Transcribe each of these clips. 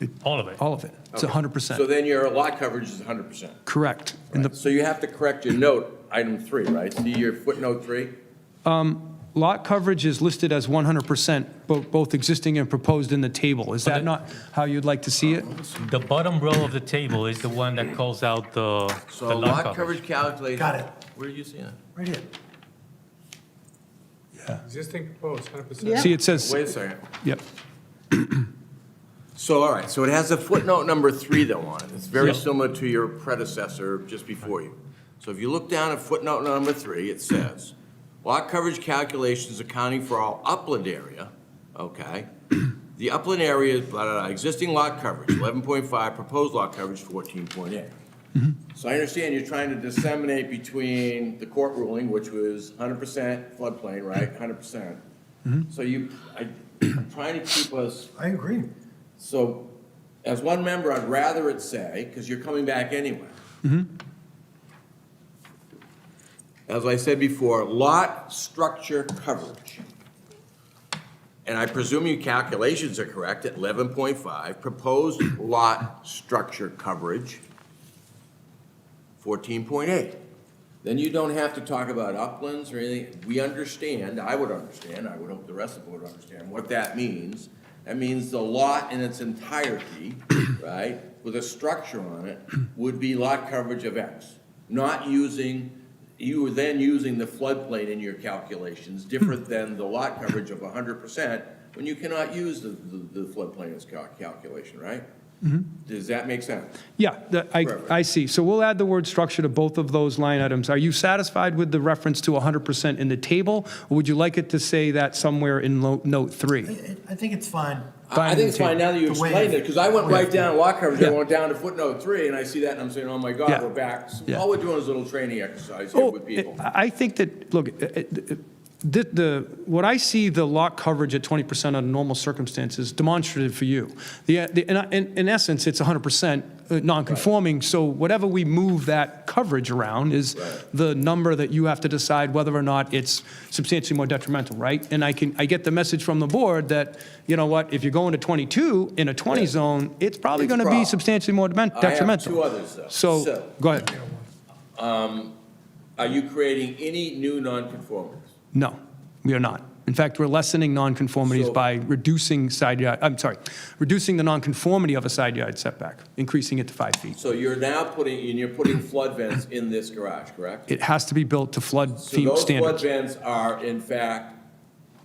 It- All of it. All of it. It's 100%. So then your lot coverage is hundred percent. Correct. And the So you have to correct your note, item three, right? See your footnote three? lot coverage is listed as 100%, bo- both existing and proposed in the table. Is that the- not how you'd like to see it? The bottom row of the table is the one that calls out the, So the lot lot coverage. coverage calculated. Got it. Where are you seeing it? Right here. Existing proposed, hundred percent. See, it says, Wait a second. yep, So, all right, so it has a footnote number three though on it. It's very Yep. similar to your predecessor just before you. So if you look down at footnote number three, it says, lot coverage calculations accounting for all upland area, okay? The upland area, is blah, blah, blah, existing lot coverage, eleven point five, proposed lot coverage, fourteen point eight. So I understand you're trying to disseminate between the court ruling, which was hundred percent floodplain, right, hundred percent? So you, I, I'm trying to keep us I agree. so, as one member, I'd rather it say, because you're coming back anyway. As I said before, lot structure coverage. And I presume your calculations are correct at eleven point five, proposed lot structure coverage, fourteen point eight. Then you don't have to talk about uplands or anything. We understand, I would understand, I would hope the rest of the board would understand what that means. That means the lot in its entirety, right, with a structure on it, would be lot coverage of X. Not using, you were then using the floodplain in your calculations, different than the lot coverage of hundred percent, when you cannot use the, the the floodplain as cal- calculation, right? Does that make sense? yeah, that- I, Perfect. I see. So we'll add the word structure to both of those line items. Are you satisfied with the reference to 100% in the table? Or would you like it to say that somewhere in lo- note I- three? I I think it's fine. I I think it's Fine. fine now that you The way- explained it, because I went right down lot coverage, Yeah. I went down to footnote three, and I see that, and I'm saying, oh my Yeah. God, we're back. So Yeah. All we're doing is a little training exercise here Oh, with people. I I think that, look, it- it- it- the, the, what I see the lot coverage at 20% under normal circumstances demonstrative for you. The, the- in- in, in essence, it's 100% uh, non-conforming, so whatever we move that coverage around is the number that you have to decide whether or not it's substantially more detrimental, right? And I can, I get the message from the board that, you know what, if you're going to 22 in a 20 zone, it's probably It's going to be problem. substantially more demen- I have uh, detrimental. two others, though. So- So, go ahead. Are you creating any new nonconformities? No, we are not. In fact, we're lessening nonconformities So- by reducing side yard, I'm sorry, reducing the nonconformity of a side yard setback, increasing it to five feet. So you're now putting, and you're putting flood vents in this garage, correct? It has to be built to flood So fee- those flood standards. vents are in fact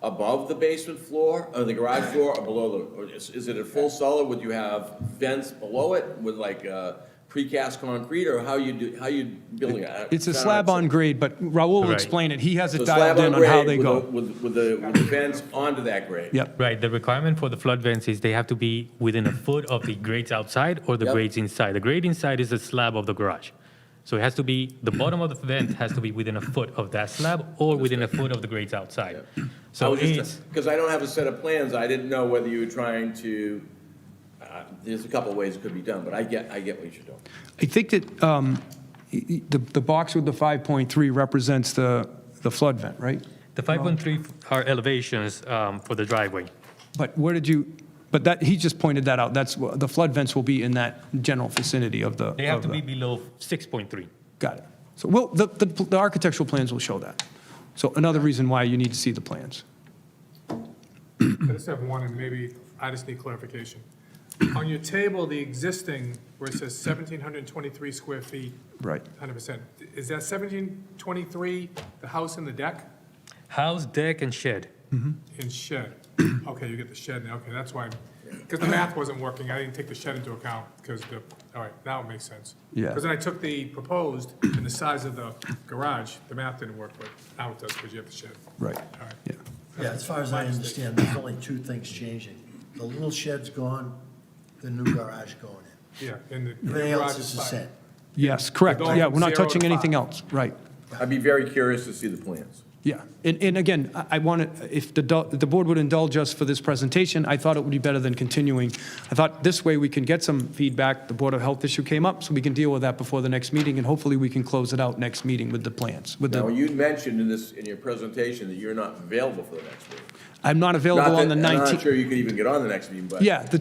above the basement floor, or the garage floor, or below the, or is, is it a full cellar? Would you have vents below it with like, uh, precast concrete, or how you do, how you building it? I- It's a I don't slab on understand. grade, but Raul will Right. explain it. He has So it slab dialed in on how grade they with the- go. With, with the, with the vents onto that grade? Yep, Right, the requirement for the flood vents is they have to be within a foot of the grades outside or the Yep. grades inside. The grade inside is the slab of the garage. So it has to be, the bottom of the vent has to be within a foot of that slab or within a foot of the grades outside. I So was it's, just, because I don't have a set of plans, I didn't know whether you were trying to, uh, there's a couple of ways it could be done, but I get, I get what you're doing. I think that um, y- y- the, the box with the 5.3 represents the, the flood vent, right? the 5.3 are elevations um, for the driveway. But where did you, but that, he just pointed that out. That's, wh- the flood vents will be in that general vicinity of the. They have of to the- be below 6.3. Got it. So, well, the, the, the architectural plans will show that. So another reason why you need to see the plans. I just have one, and maybe I just need clarification. On your table, the existing, where it says seventeen hundred and twenty-three square feet, Right. hundred percent, is that seventeen twenty-three, the house and the deck House, deck, and shed. and shed? Okay, you get the shed now, okay, that's why, because the math wasn't working, I didn't take the shed into account, because the, all right, now it makes sense. Yeah. Because then I took the proposed and the size of the garage, the math didn't work, but now it does, because you have the shed. Right. All right. Yeah. Yeah, as far as I understand, there's only two things changing. The little shed's gone, the new garage going in. Yeah, and the the Everything else garage is is the fine. same. Yes, correct. Going Yeah, we're not from zero touching to anything five. else. Right. I'd be very curious to see the plans. Yeah. And, and again, I- I want to, if the, do- the board would indulge us for this presentation, I thought it would be better than continuing. I thought this way we can get some feedback. The Board of Health issue came up, so we can deal with that before the next meeting, and hopefully we can close it out next meeting with the plans, with Now, the, you mentioned in this, in your presentation that you're not available for the next meeting. I'm not Not available on that- the I'm not 19th. sure you could even get on the next meeting, but. Yeah, the